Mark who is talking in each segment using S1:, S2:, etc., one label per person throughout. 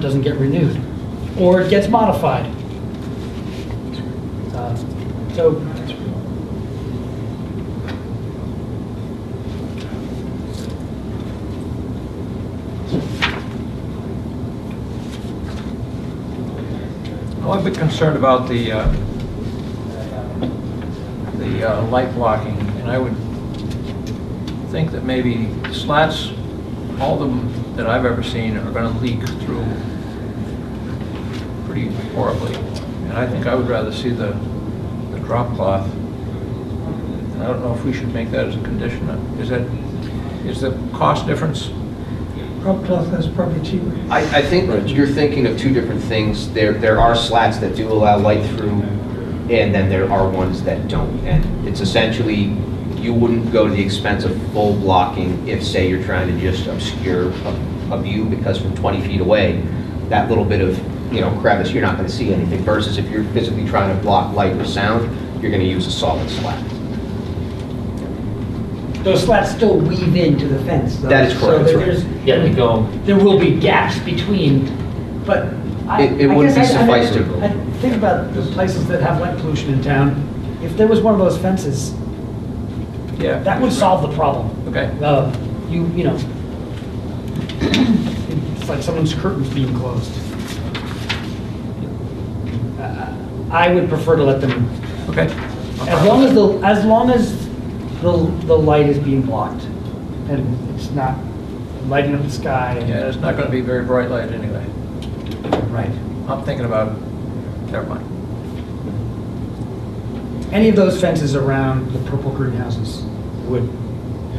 S1: doesn't get renewed, or it gets modified. Uh, So,
S2: Well, I'm a bit concerned about the, uh, the uh, light blocking, and I would think that maybe slats, all of them that I've ever seen are going to leak through pretty horribly. And I think I would rather see the, the drop cloth. And I don't know if we should make that as a condition. Is that, is the cost difference?
S3: Drop cloth is probably cheaper.
S4: I, I think you're thinking of two different things. There, there are slats that do allow light through, and then there are ones that don't. And it's essentially, you wouldn't go to the expense of full blocking if, say, you're trying to just obscure a, a view, because from 20 feet away, that little bit of, you know, crevice, you're not going to see anything, versus if you're physically trying to block light or sound, you're going to use a solid slat.
S3: Those slats still weave into the fence, though.
S4: That is correct,
S3: So there-
S4: that's
S3: there's,
S1: yeah, we go, there will be gaps between,
S3: but I.
S4: It- it
S3: I
S4: wouldn't
S3: guess
S4: be
S3: I- I mean,
S4: suffice to-
S3: I Think about the places that have light pollution in town. If there was one of those fences,
S2: Yeah.
S3: that would solve the problem.
S2: Okay.
S3: Uh, You, you know. It's like someone's curtains being closed. Uh, I would prefer to let them,
S2: Okay.
S3: as long as the, as long as the, the light is being blocked and it's not lighting up the sky. and-
S2: Yeah, it's not going to be very bright light anyway.
S3: Right.
S2: I'm thinking about, never mind.
S3: Any of those fences around the purple greenhouses would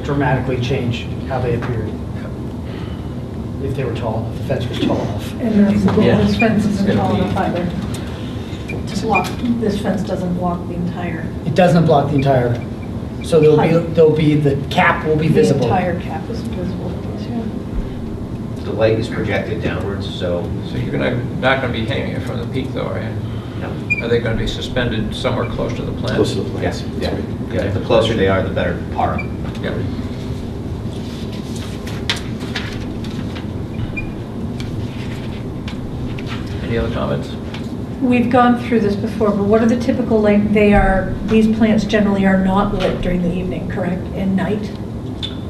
S3: dramatically change how they appeared if they were tall enough, the fence was tall enough.
S5: And that's the goal,
S2: Yeah.
S5: this fence isn't
S2: It's
S5: tall
S2: gonna be-
S5: enough either. To block, this fence doesn't block the entire,
S3: It doesn't block the entire, so there'll be, there'll be, the cap will be
S5: the
S3: visible.
S5: entire cap is visible. yeah.
S4: The light is projected downwards, so,
S2: So you're going to, not going to be hanging it from the peak though, are you?
S4: you know,
S2: Are they going to be suspended somewhere close to the plant?
S6: Close to the
S4: yes,
S6: plants. that's
S4: yeah,
S6: right.
S4: yeah, the closer they are, the better par.
S2: Yeah. Any other comments?
S5: We've gone through this before, but what are the typical, like, they are, these plants generally are not lit during the evening, correct? And night?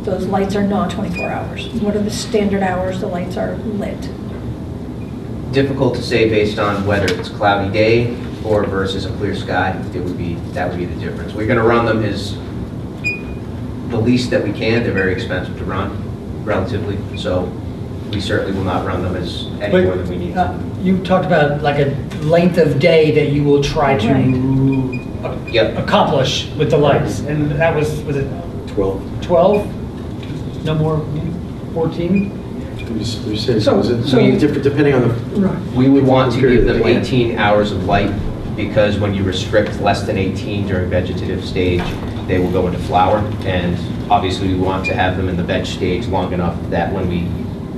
S5: Those lights are not 24 hours. What are the standard hours the lights are lit?
S4: difficult to say based on whether it's cloudy day or versus a clear sky. It would be, that would be the difference. We're gonna run them as the least that we can. They're very expensive to run relatively, so we certainly will not run them as any more than we need
S3: But uh,
S4: to.
S3: you talked about like a length of day that you will try to ac-
S4: Yep,
S3: accomplish with the lights, and that was, was it
S6: 12.
S3: 12? No more, 14?
S6: You s- you said,
S3: So-
S6: was it,
S3: so-
S6: I mean, different- depending on the,
S4: we would want to give them
S6: Period of the
S4: 18 hours of light because when you restrict less than 18 during vegetative stage, they will go into flower. And obviously, we want to have them in the veg stage long enough that when we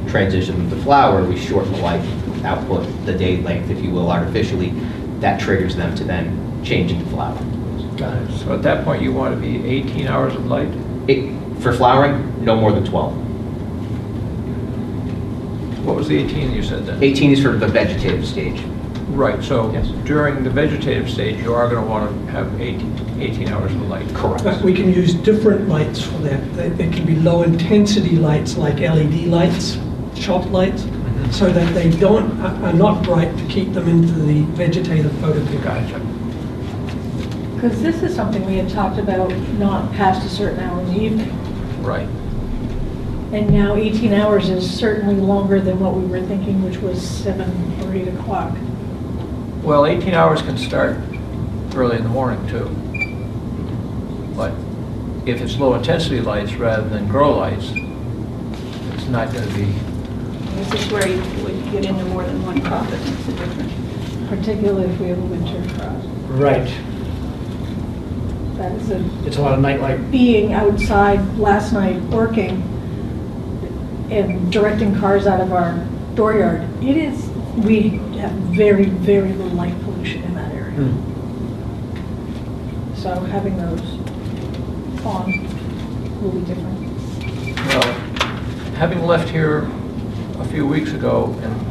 S4: transition them to flower, we shorten the light output, the day length, if you will, artificially. That triggers them to then change into flower.
S3: Got it.
S2: So at that point, you want to be 18 hours of light?
S4: It- For flowering, no more than 12.
S2: What was the 18 you said then?
S4: 18 is for the vegetative stage.
S2: Right, so
S4: Yes.
S2: during the vegetative stage, you are going to want to have 18 18 hours of light.
S4: Correct.
S7: We can use different lights for that. They they can be low-intensity lights like LED lights, shop lights, so that they don't, are are not bright to keep them into the vegetative photoperiod.
S2: Gotcha.
S5: Because this is something we had talked about, not past a certain hour in the evening.
S2: Right.
S5: And now 18 hours is certainly longer than what we were thinking, which was 7 or 8 o'clock.
S2: Well, 18 hours can start early in the morning, too. But if it's low-intensity lights rather than grow lights, it's not going to be,
S8: This is where you would get into more than one crop that makes a difference.
S5: particularly if we have a winter crop.
S3: Right.
S5: That is a,
S3: It's a lot of nightlight.
S5: being outside last night working and directing cars out of our dooryard, it is, we have very, very little light pollution in that area.
S3: Hmm.
S5: So having those on will be different.
S2: well, having left here a few weeks ago and